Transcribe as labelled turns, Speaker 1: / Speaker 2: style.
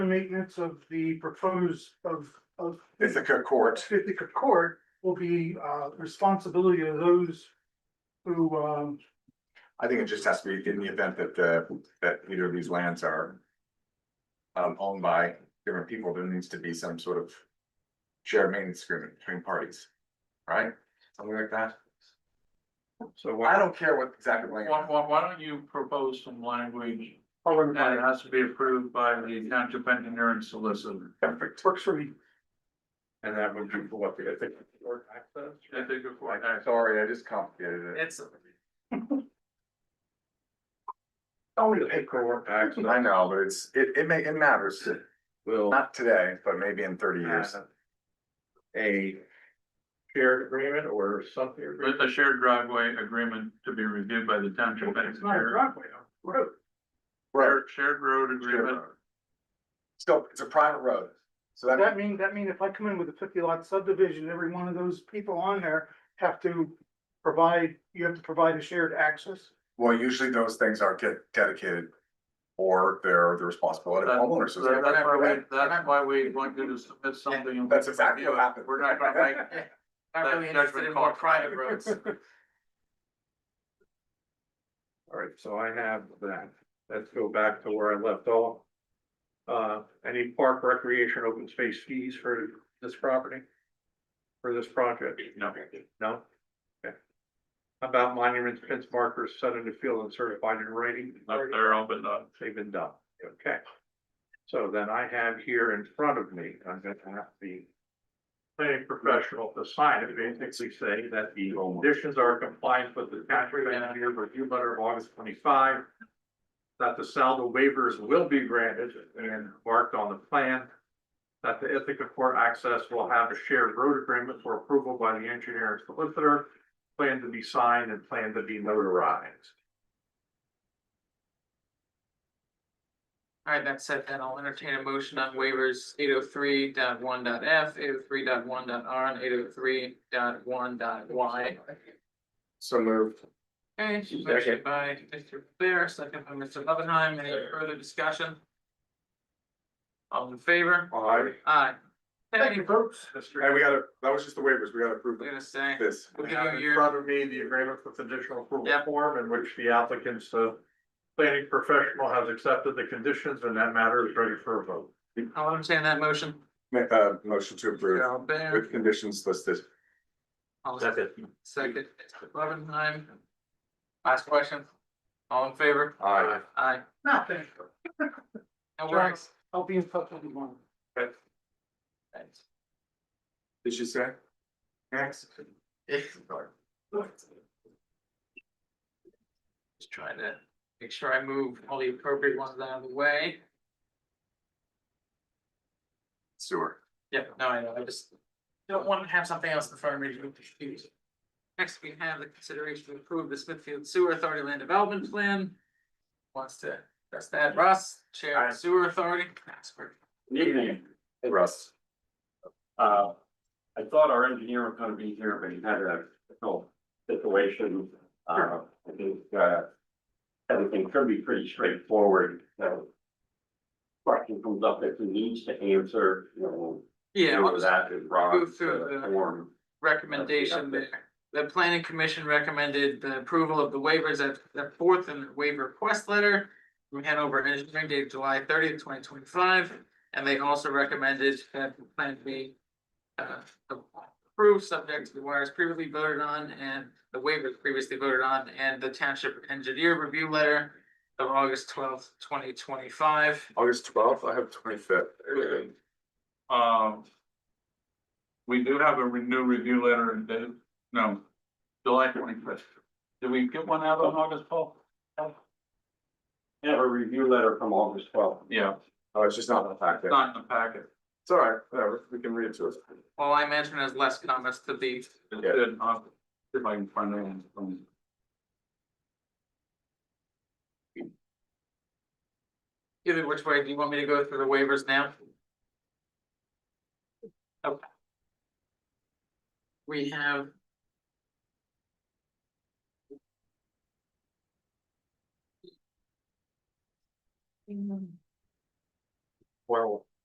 Speaker 1: the maintenance of the proposed of of
Speaker 2: Ithaca Court.
Speaker 1: Ithaca Court will be uh responsibility of those who um
Speaker 2: I think it just has to be in the event that the, that either of these lands are. Um, owned by different people, there needs to be some sort of. Shared maintenance agreement between parties, right? Something like that.
Speaker 3: So
Speaker 2: I
Speaker 3: why,
Speaker 2: don't care what exactly
Speaker 3: why,
Speaker 2: land.
Speaker 3: why, why don't you propose some language that
Speaker 1: Holland
Speaker 3: has to be approved by the township engineer and solicitor?
Speaker 2: Perfect.
Speaker 1: works for me.
Speaker 4: And that would be for what, the ethics board access?
Speaker 3: I think if I-
Speaker 2: I'm Sorry, I just complicated it.
Speaker 4: It's.
Speaker 1: Only the
Speaker 4: Paperwork access.
Speaker 2: I know, but it's, it, it may, it matters,
Speaker 4: Will.
Speaker 2: not today, but maybe in thirty years.
Speaker 4: have A shared agreement or something.
Speaker 3: With a shared driveway agreement to be reviewed by the township
Speaker 1: It's not a
Speaker 3: engineer.
Speaker 1: driveway, a road.
Speaker 2: Right.
Speaker 3: Shared- Shared road agreement,
Speaker 2: Still, it's a private road, so
Speaker 1: Does
Speaker 2: that,
Speaker 1: That mean, that mean if I come in with a fifty lot subdivision, every one of those people on there have to provide, you have to provide a shared access?
Speaker 2: well, usually those things are get dedicated. Or they're the responsibility of
Speaker 3: That-
Speaker 2: homeowners.
Speaker 3: So
Speaker 2: so
Speaker 3: that- that's why we,
Speaker 2: they're-
Speaker 3: that's why we want you to submit something.
Speaker 2: That's exactly what happened.
Speaker 3: We're not gonna make.
Speaker 5: I'm
Speaker 3: that
Speaker 5: really interested
Speaker 3: judgment
Speaker 5: in more
Speaker 3: call.
Speaker 5: private roads.
Speaker 4: All right, so I have that. Let's go back to where I left off. Uh, any park recreation open space fees for this property? For this project?
Speaker 3: No.
Speaker 4: No? Okay. How About monuments, fence markers set in the field and certified in writing?
Speaker 3: Up there, all but not.
Speaker 4: They've been done, okay. So then I have here in front of me, I'm gonna have the. Planning professional to sign it, basically say that the conditions are compliant with the country manager review letter of August twenty-five. That the saldo waivers will be granted and marked on the plan. That the Ithaca Court access will have a shared road agreement for approval by the engineer and solicitor. Plan to be signed and plan to be notarized.
Speaker 5: Alright, that said, then I'll entertain a motion on waivers eight oh three dot one dot F, eight oh three dot one dot R, and eight oh three dot one dot Y.
Speaker 2: So moved.
Speaker 5: Okay, motion by Mr. Bear, second by Mr. Loveenheim, any further discussion? All in favor?
Speaker 2: Aye.
Speaker 5: Aye. Thank you,
Speaker 1: folks.
Speaker 2: And we gotta, that was just the waivers, we gotta approve
Speaker 5: I'm
Speaker 2: them.
Speaker 5: gonna say,
Speaker 2: this.
Speaker 5: we'll give
Speaker 4: I have
Speaker 5: you
Speaker 4: in
Speaker 5: your,
Speaker 4: front of me the agreement with additional approval
Speaker 5: Yep.
Speaker 4: form in which the applicant's, the planning professional has accepted the conditions and that matter is ready for a vote.
Speaker 5: I'll entertain that motion.
Speaker 2: Make a motion to approve
Speaker 5: Darrell Bear,
Speaker 2: with conditions listed.
Speaker 5: I'll
Speaker 4: That's it.
Speaker 5: second, Mr. Loveenheim. Last question, all in favor?
Speaker 2: Aye.
Speaker 5: Aye.
Speaker 1: Nothing.
Speaker 5: That works.
Speaker 1: I'll be in touch with you tomorrow.
Speaker 5: Thanks.
Speaker 2: Did you say? Next.
Speaker 5: Just trying to make sure I move all the appropriate ones out of the way.
Speaker 2: Sewer.
Speaker 5: Yep, no, I know, I just don't want to have something else in front of me to be confused. Next, we have the consideration to approve the Smithfield Sewer Authority Land Development Plan. Wants to, that's that, Russ, Chair of the Sewer Authority, expert.
Speaker 6: Good Evening,
Speaker 2: Hey, Russ.
Speaker 6: uh, I thought our engineer was gonna be here, but he had a difficult situation, uh, I think, uh. Everything could be pretty straightforward, so. Question comes up if he needs to answer, you know.
Speaker 5: Yeah,
Speaker 6: deal
Speaker 5: I'll
Speaker 6: with
Speaker 5: just
Speaker 6: That is wrong,
Speaker 5: move through the-
Speaker 6: form.
Speaker 5: recommendation there. The planning commission recommended the approval of the waivers at the fourth in the waiver request letter. From Hanover Engineering dated July thirtieth, twenty twenty five, and they also recommended that the plan be. Uh, approved subject to the wires previously voted on and the waivers previously voted on and the township engineer review letter. Of August twelfth, twenty twenty five.
Speaker 2: August twelfth, I have twenty fifth.
Speaker 3: Um. We do have a re- new review letter in, Dave- no, July twenty-fifth. Did we get one out on August, Paul?
Speaker 6: I Have a review letter from August twelfth.
Speaker 3: Yeah,
Speaker 2: Oh, it's just not in the
Speaker 3: it's
Speaker 2: packet.
Speaker 3: not in the packet.
Speaker 2: It's all right, whatever, we can read it to us.
Speaker 5: All I mentioned is less comments to the
Speaker 3: It's
Speaker 2: Yeah.
Speaker 3: in August, if I can find it. on-
Speaker 5: Either which way, do you want me to go through the waivers now? Okay. We have.
Speaker 4: Well,